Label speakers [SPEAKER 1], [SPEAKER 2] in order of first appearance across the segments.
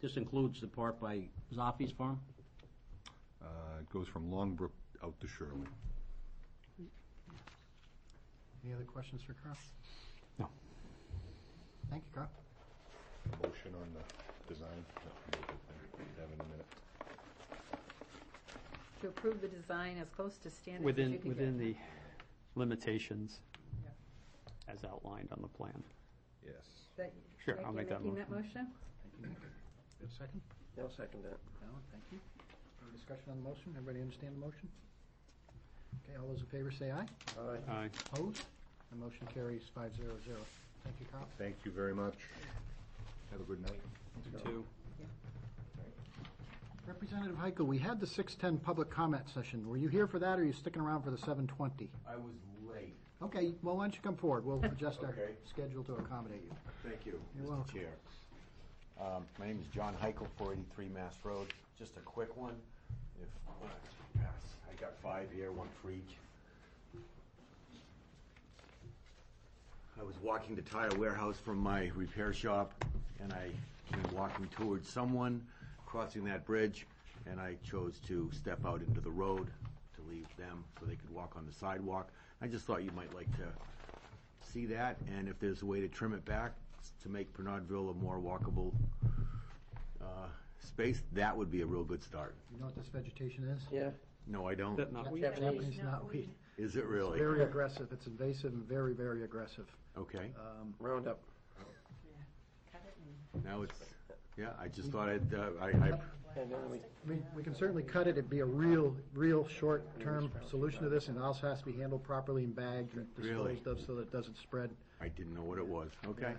[SPEAKER 1] This includes the part by Zoffi's farm?
[SPEAKER 2] Uh, It goes from Longbrook out to Shirley.
[SPEAKER 3] Any other questions for Carl?
[SPEAKER 4] No.
[SPEAKER 3] Thank you, Carl.
[SPEAKER 2] Motion on the design? No, Have it in a minute.
[SPEAKER 5] To approve the design as close to standards as you
[SPEAKER 4] Within,
[SPEAKER 5] can get.
[SPEAKER 4] within the limitations as outlined on the plan.
[SPEAKER 2] Yes.
[SPEAKER 5] That-
[SPEAKER 4] Sure,
[SPEAKER 5] Nick,
[SPEAKER 4] I'll
[SPEAKER 5] you
[SPEAKER 4] make that
[SPEAKER 5] making that motion?
[SPEAKER 3] Thank you, Nick. Good second?
[SPEAKER 6] I'll second that.
[SPEAKER 3] Alan, thank you. Any discussion on the motion? Everybody understand the motion? Okay, all those in favor say aye.
[SPEAKER 6] Aye.
[SPEAKER 4] Aye.
[SPEAKER 3] Opposed? The motion carries five zero zero. Thank you, Carl.
[SPEAKER 2] Thank you very much. Have a good night.
[SPEAKER 4] Two.
[SPEAKER 3] Representative Heiko, we had the six-ten public comment session. Were you here for that, or are you sticking around for the seven-twenty?
[SPEAKER 7] I was late.
[SPEAKER 3] Okay, well, why don't you come forward? We'll adjust our
[SPEAKER 7] Okay.
[SPEAKER 3] schedule to accommodate you.
[SPEAKER 7] Thank you,
[SPEAKER 3] You're
[SPEAKER 7] Mr.
[SPEAKER 3] welcome.
[SPEAKER 7] Chair. Um, My name is John Heichel, 483 Mass Road. Just a quick one. If, uh, pass. I got five here, one for each. I was walking to Tire Warehouse from my repair shop, and I came walking towards someone crossing that bridge, and I chose to step out into the road to leave them so they could walk on the sidewalk. I just thought you might like to see that, and if there's a way to trim it back to make Pernodville a more walkable uh, space, that would be a real good start.
[SPEAKER 3] You know what this vegetation is?
[SPEAKER 6] Yeah.
[SPEAKER 7] No, I don't.
[SPEAKER 4] That knotweed?
[SPEAKER 6] Japanese
[SPEAKER 3] Japanese knotweed.
[SPEAKER 5] knotweed.
[SPEAKER 7] Is it really?
[SPEAKER 3] Very aggressive. It's invasive and very, very aggressive.
[SPEAKER 7] Okay,
[SPEAKER 3] Um,
[SPEAKER 6] Roundup.
[SPEAKER 5] Cut it and-
[SPEAKER 7] now it's, yeah, I
[SPEAKER 3] Mm-hmm.
[SPEAKER 7] just thought I'd, uh, I, I,
[SPEAKER 6] And then we,
[SPEAKER 3] I mean, we can certainly cut it, it'd be a real, real short-term solution to this, and it also has to be handled properly and bagged and
[SPEAKER 7] Really?
[SPEAKER 3] disposed of so that it doesn't spread.
[SPEAKER 7] I didn't know what it was. Okay.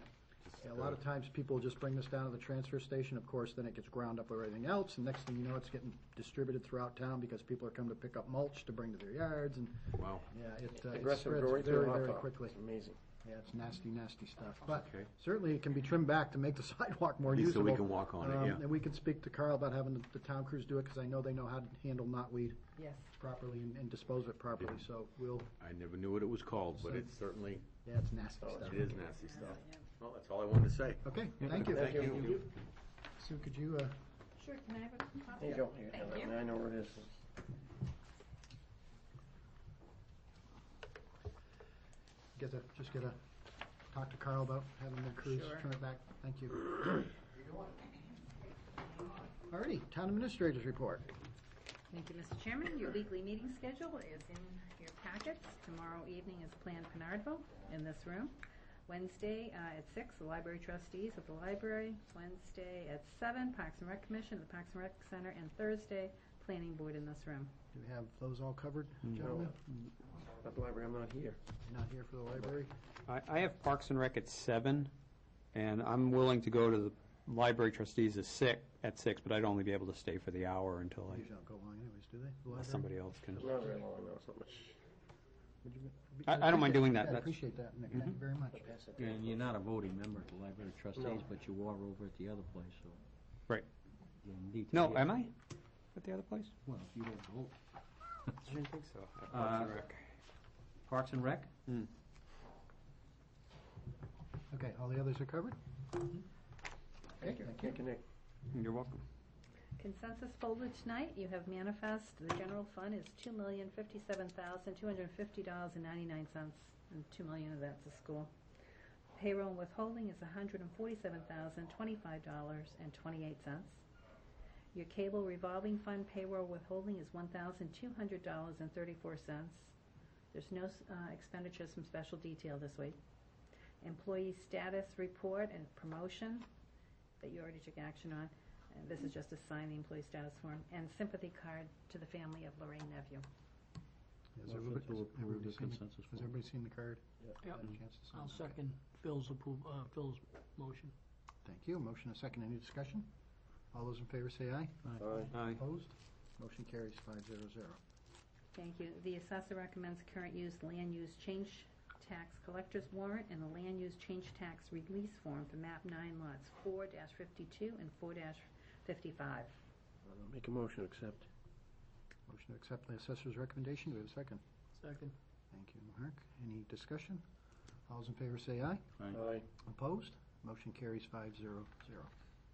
[SPEAKER 3] Yeah, A lot of times, people just bring this down to the transfer station, of course, then it gets ground up with everything else, and next thing you know, it's getting distributed throughout town because people are coming to pick up mulch to bring to their yards, and,
[SPEAKER 7] Wow,
[SPEAKER 3] yeah, it, uh, it
[SPEAKER 6] aggressive
[SPEAKER 3] spreads
[SPEAKER 6] growing
[SPEAKER 3] very,
[SPEAKER 6] through hot
[SPEAKER 3] very
[SPEAKER 6] dog.
[SPEAKER 3] quickly.
[SPEAKER 6] Amazing.
[SPEAKER 3] Yeah, it's nasty, nasty stuff, but
[SPEAKER 7] Okay.
[SPEAKER 3] certainly it can be trimmed back to make the sidewalk more
[SPEAKER 7] At least so
[SPEAKER 3] usable.
[SPEAKER 7] we can walk on it,
[SPEAKER 3] Um,
[SPEAKER 7] yeah.
[SPEAKER 3] And we can speak to Carl about having the- the town crews do it, because I know they know how to handle knotweed
[SPEAKER 5] Yes.
[SPEAKER 3] properly and and dispose of it properly, so we'll,
[SPEAKER 7] I never knew what it was called, but it's certainly,
[SPEAKER 3] yeah, it's nasty stuff.
[SPEAKER 7] Oh, it is nasty stuff. Well, that's all I wanted to say.
[SPEAKER 3] Okay, thank you.
[SPEAKER 7] Thank you.
[SPEAKER 3] Sue, could you, uh,
[SPEAKER 5] Sure, can I have a copy?
[SPEAKER 6] There you go. Here,
[SPEAKER 5] Thank
[SPEAKER 6] have it.
[SPEAKER 5] you.
[SPEAKER 6] I know where it is.
[SPEAKER 3] get a, just get a, talk to Carl about having the crews
[SPEAKER 5] Sure.
[SPEAKER 3] turn it back? Thank you. Alrighty, town administrators report.
[SPEAKER 5] Thank you, Mr. Chairman. Your weekly meeting schedule is in your packets. Tomorrow evening is Planned Penardville in this room. Wednesday uh, at six, the library trustees at the library. Wednesday at seven, Parks and Rec Commission at the Parks and Rec Center. And Thursday, Planning Board in this room.
[SPEAKER 3] Do we have those all covered, gentlemen?
[SPEAKER 6] At the library, I'm not here.
[SPEAKER 3] Not here for the library?
[SPEAKER 4] I, I have Parks and Rec at seven, and I'm willing to go to the library trustees at six, at six, but I'd only be able to stay for the hour until
[SPEAKER 3] Usually
[SPEAKER 4] I,
[SPEAKER 3] don't go long anyways, do they? The
[SPEAKER 4] unless
[SPEAKER 3] library?
[SPEAKER 4] somebody else can.
[SPEAKER 6] It's not very long, no, it's not much.
[SPEAKER 3] Would you-
[SPEAKER 4] I- I don't mind doing that.
[SPEAKER 3] I
[SPEAKER 4] That's- Mm-hmm.
[SPEAKER 3] appreciate that, Nick, thank you very much.
[SPEAKER 6] Pass it.
[SPEAKER 1] And you're not a voting member of the Library of Trustees, but you are over at the other place, so
[SPEAKER 4] Right.
[SPEAKER 1] you need to...
[SPEAKER 4] No,
[SPEAKER 1] be-
[SPEAKER 4] am I at the other place?
[SPEAKER 1] Well, if you don't vote.
[SPEAKER 4] I didn't think so. Uh,
[SPEAKER 1] Parks and Parks and Rec?
[SPEAKER 3] Okay, all the others are covered? Okay, thank you.
[SPEAKER 6] Thank you, Nick.
[SPEAKER 4] You're welcome.
[SPEAKER 5] Consensus folder tonight, you have manifest, the general fund is two million fifty-seven thousand, two hundred and fifty dollars and ninety-nine cents, and two million of that's a school. Payroll and withholding is hundred and forty-seven thousand, twenty-five dollars and twenty-eight cents. Your cable revolving fund payroll withholding is one thousand, two hundred dollars and thirty-four cents. There's no, s- uh, expenditures from special detail this week. Employee status report and promotion that you already took action on. And this is just to sign the employee status form, and sympathy card to the family of Lorraine Neveu.
[SPEAKER 3] Has
[SPEAKER 1] Motion to
[SPEAKER 3] everybody- has
[SPEAKER 1] approve
[SPEAKER 3] everybody
[SPEAKER 1] the
[SPEAKER 3] seen the-
[SPEAKER 1] consensus
[SPEAKER 3] Has
[SPEAKER 1] vote.
[SPEAKER 3] everybody seen the card?
[SPEAKER 8] Yep.
[SPEAKER 3] Had a chance to sign
[SPEAKER 8] I'll
[SPEAKER 3] it?
[SPEAKER 8] second Phil's approve, uh, Phil's motion.
[SPEAKER 3] Thank you, motion and second, any discussion? All those in favor say aye.
[SPEAKER 6] Aye.
[SPEAKER 4] Aye.
[SPEAKER 3] Opposed? Motion carries five zero zero.
[SPEAKER 5] Thank you. The assessor recommends current use land use change tax collector's warrant and the land use change tax release form for map nine lots four fifty-two and four fifty-five.
[SPEAKER 6] I'll Make a motion to accept.
[SPEAKER 3] Motion to accept the assessor's recommendation, do we have a second?
[SPEAKER 8] Second.
[SPEAKER 3] Thank you, Mark. Any discussion? All those in favor say aye.
[SPEAKER 6] Aye.
[SPEAKER 3] Opposed? Motion carries five zero zero.